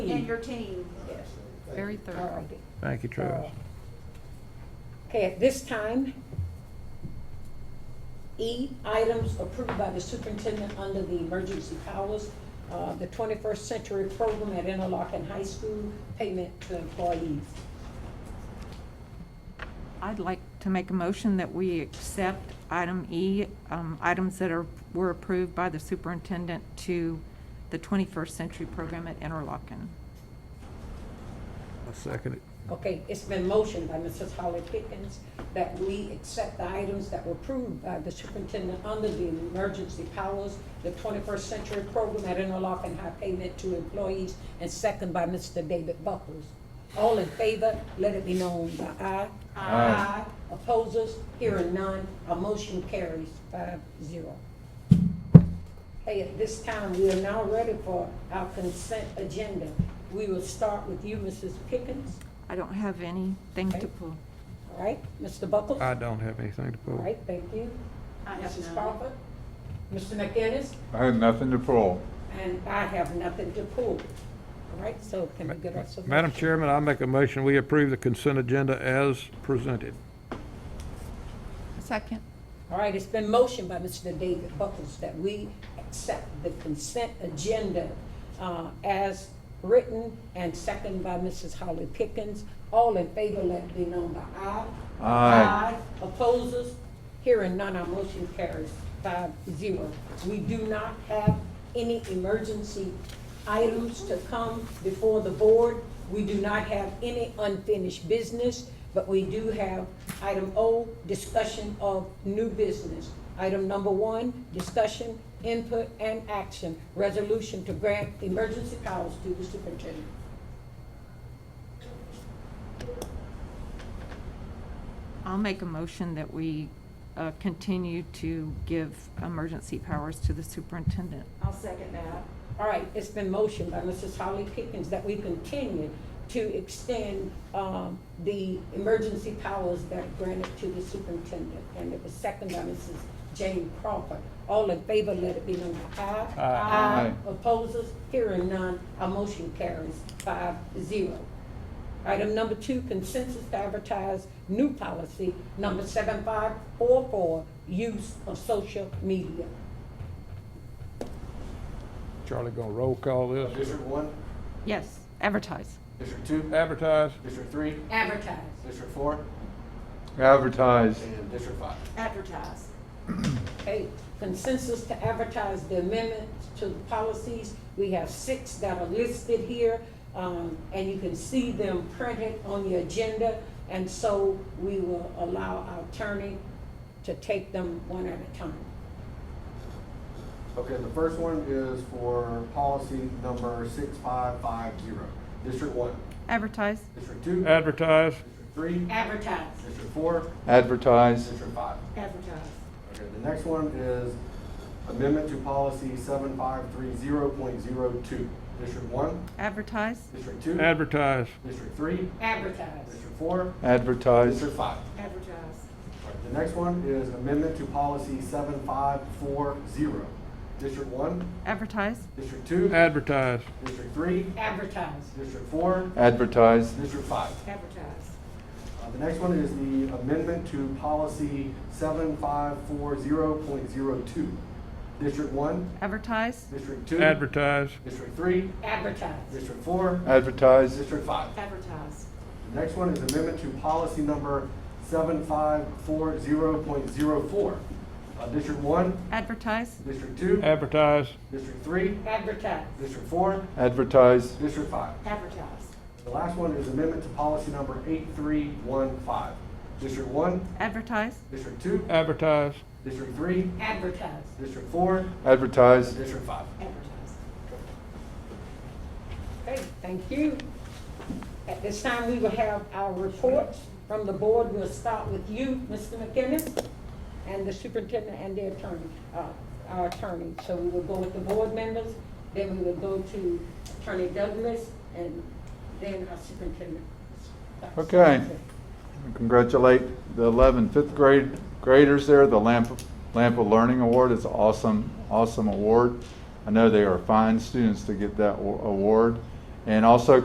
and team. your team. Yes. Very All thorough. righty. Thank you, Travis. Okay, at this time, E, items approved by the superintendent under the emergency powers, uh, the twenty-first century program at Interlochen High School, payment to employees. I'd like to make a motion that we accept item E, um, items that are, were approved by the superintendent to the 21st Century Program at Interlochen. I'll second it. Okay, it's been motioned by Mrs. Holly Pickens that we accept the items that were approved by the superintendent under the emergency powers, the twenty-first century program at Interlochen High payment to employees, and second by Mr. David Buckles. All in favor, let it be known by aye. Aye. Opposers, hearing none, our motion carries five zero. Hey, at this time, we are now ready for our consent agenda. We will start with you, Mrs. Pickens. I don't have anything to Okay. pull. All right, Mr. Buckles? I don't have anything to All pull. right, thank you. I have Mrs. none. Crawford? Mr. McInnes? I had nothing to pull. And I have nothing to pull. All right, so can we get us a? Madam Chairman, I make a motion, we approve the consent agenda as presented. Second. All right, it's been motioned by Mr. David Buckles that we accept the consent agenda uh, as written and second by Mrs. Holly Pickens. All in favor, let it be known by aye. Aye. Opposers? Hearing none, our motion carries five zero. We do not have any emergency items to come before the board. We do not have any unfinished business, but we do have item O, discussion of new business. Item number one, discussion, input, and action, resolution to grant emergency powers to the superintendent. I'll make a motion that we uh, continue to give emergency powers to the superintendent. I'll second that. All right, it's been motioned by Mrs. Holly Pickens that we continue to extend um, the emergency powers that are granted to the superintendent. And it was seconded by Mrs. Jane Crawford. All in favor, let it be known by aye. Aye. Opposers, hearing none, our motion carries five zero. Item number two, consensus to advertise new policy number seven five four four, use of social media. Charlie gonna roll call this? District one, Yes, advertise. district two, Advertise? district three, Advertise. district four, Advertise. and district five. Advertise. Okay, consensus to advertise the amendments to the policies. We have six that are listed here, um, and you can see them printed on the agenda. And so we will allow our attorney to take them one at a time. Okay, the first one is for policy number six five five zero. District one, Advertise. district two, district Advertise? three, Advertise. district four, Advertise. district five. Advertise. Okay, the next one is amendment to policy seven five three zero point zero two. District one, Advertise. district two, Advertise. district three, Advertise. district four, Advertise. district five. Advertise. Alright, The next one is amendment to policy seven five four zero. District one, Advertise. district two, Advertise. district three, Advertise. district four, Advertise. district five. Advertise. Uh, The next one is the amendment to policy seven five four zero point zero two. District one, Advertise. district two, Advertise. district three, Advertise. district four, Advertise. district five. Advertise. The next one is amendment to policy number seven five four zero point zero four. Uh, District one, Advertise. district two, Advertise. district three, Advertise. district four, Advertise. District five. Advertise. The last one is amendment to policy number eight three one five. District one, Advertise. district two, Advertise. district three, Advertise. district four, Advertise. district five. Advertise. Okay, thank you. At this time, we will have our reports from the board. We'll start with you, Mr. McKinnon, and the superintendent and the attorney, uh, our attorney. So we will go with the board members, then we will go to Attorney Douglas, and then our superintendent. Okay. Congratulate the 11 fifth grade graders there. The Lamp Lampa Learning Award is awesome, awesome award. I know they are fine students to get that wa- award. And also